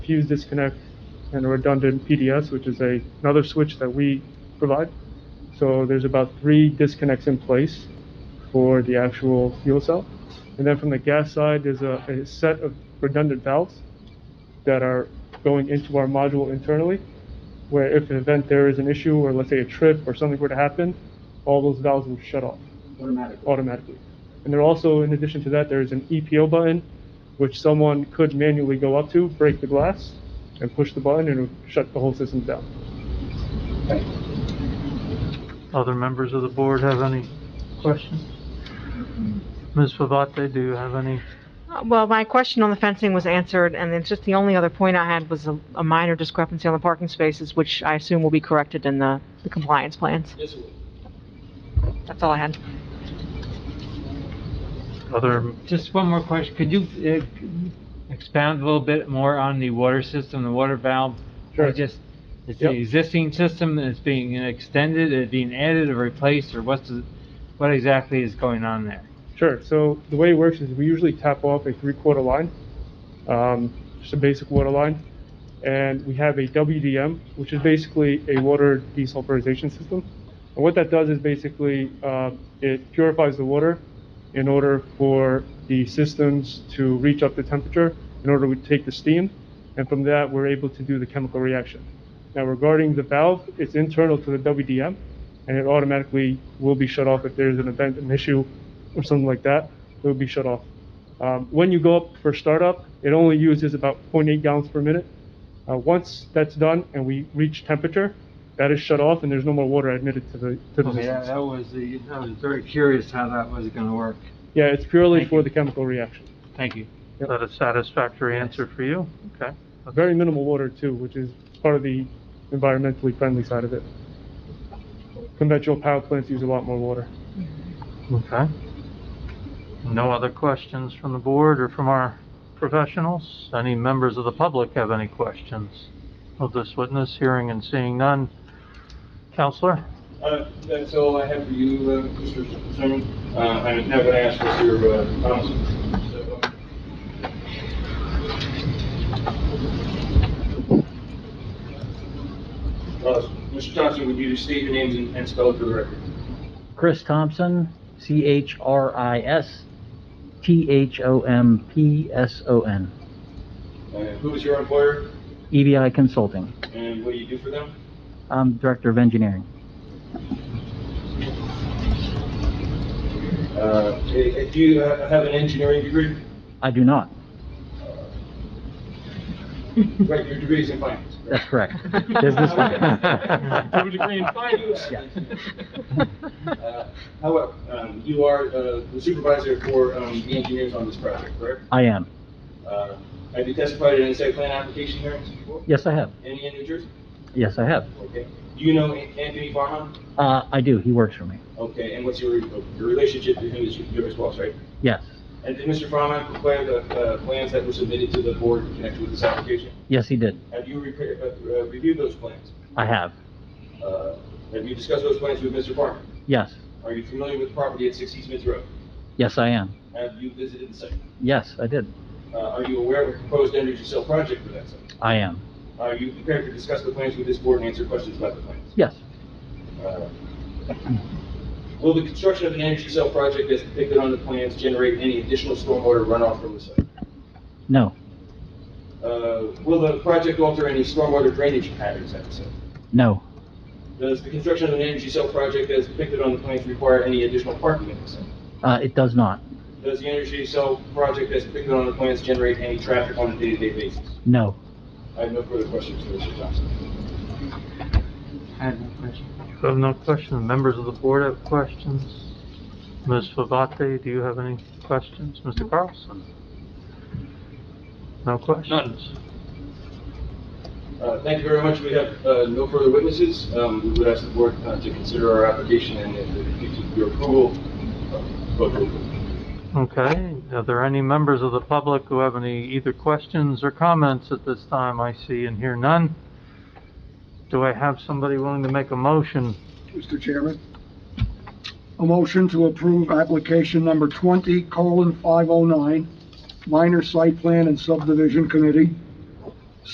fuse disconnect and a redundant PDS, which is a, another switch that we provide. So there's about three disconnects in place for the actual fuel cell. And then from the gas side, there's a, a set of redundant valves that are going into our module internally, where if an event there is an issue, or let's say a trip or something were to happen, all those valves will shut off automatically. automatically. And there also, in addition to that, there is an EPO button, which someone could manually go up to, break the glass, and push the button, and it would shut the whole system down. Other members of the board have any questions? Ms. Pavate, do you have any? Uh, Well, my question on the fencing was answered, and it's just the only other point I had was a a minor discrepancy on the parking spaces, which I assume will be corrected in the the compliance plans. Yes, it will. That's all I had. Other, Just one more question. Could you uh, expound a little bit more on the water system, the water valve? Sure. I just, it's the Yep. existing system and it's being extended, it's being added or replaced, or what's, the- what exactly is going on there? Sure. So the way it works is we usually tap off a three-quarter line, um, just a basic water line, and we have a WDM, which is basically a water desulfurization system. And what that does is basically uh, it purifies the water in order for the systems to reach up to temperature in order to take the steam, and from that we're able to do the chemical reaction. Now regarding the valve, it's internal to the WDM, and it automatically will be shut off if there's an event, an issue, or something like that. It will be shut off. Um, when you go up for startup, it only uses about 0.8 gallons per minute. Uh, once that's done and we reach temperature, that is shut off and there's no more water admitted to the to the Okay, system. that that was the, I was very curious how that was gonna work. Yeah, it's purely Thank for you. the chemical reaction. Thank you. is that a satisfactory answer for you? Okay. Very minimal water too, which is part of the environmentally friendly side of it. Conventional power plants use a lot more water. Okay. No other questions from the board or from our professionals? Any members of the public have any questions of this witness? Hearing and seeing none. Counselor? Uh, That's all I have for you, uh, Mr. Zimmerman. Uh, I was never asked for your uh, comments. so, uh, uh, Mr. Johnson, would you state your names and- and spell it for the record? Chris Thompson, C H R I S T H O M P S O N, And Uh, Who is your employer EBI E Consulting. and what do you do for them? I'm Director of Engineering. Uh, eh, eh, Do you ha- have an engineering degree? I do not. Right, your degree is in finance. correct? That's correct. Business have a degree in finance. Uh, However, um, you are uh, the supervisor for um, the engineers on this project, correct? I am. Uh, Have you testified in any site plan application hearings before? Yes, I have. Any in New Jersey? Yes, I have. Okay. Do you know An- Anthony Farhan? Uh, I do. He works for me. Okay, and what's your your relationship to him is your response, right? Yes. And did Mr. Farhan prepare the uh, plans that were submitted to the board in connection with this application? Yes, he did. Have you repair- uh, uh, reviewed those plans? I have. Uh, Have you discussed those plans with Mr. Farhan? Yes. Are you familiar with the property at 60 Smith Road? Yes, I am. Have you visited the site? Yes, I did. Uh, Are you aware of a proposed energy cell project for that site? I am. Are you prepared to discuss the plans with this board and answer questions about the plans? Yes. Uh, Will the construction of an energy cell project as depicted on the plans generate any additional stormwater runoff from the site? No. Uh, Will the project alter any stormwater drainage patterns at the site? No. Does the construction of an energy cell project as depicted on the plans require any additional parking at the site? Uh, it does not. Does the energy cell project as depicted on the plans generate any traffic on a day-to-day basis? No. I have no further questions for Mr. Johnson. I have no question. You have no questions. Members of the board have questions. Ms. Favate, do you have any questions? Mr. Carlson? No questions? Uh, Thank you very much. We have uh, no further witnesses. Um, We would ask the board uh, to consider our application and if it gives your approval, uh, vote to approve. Okay, are there any members of the public who have any either questions or comments at this time? I see and hear none. Do I have somebody willing to make a motion? Mr. Chairman. A motion to approve application number twenty colon five oh nine, minor site plan and subdivision committee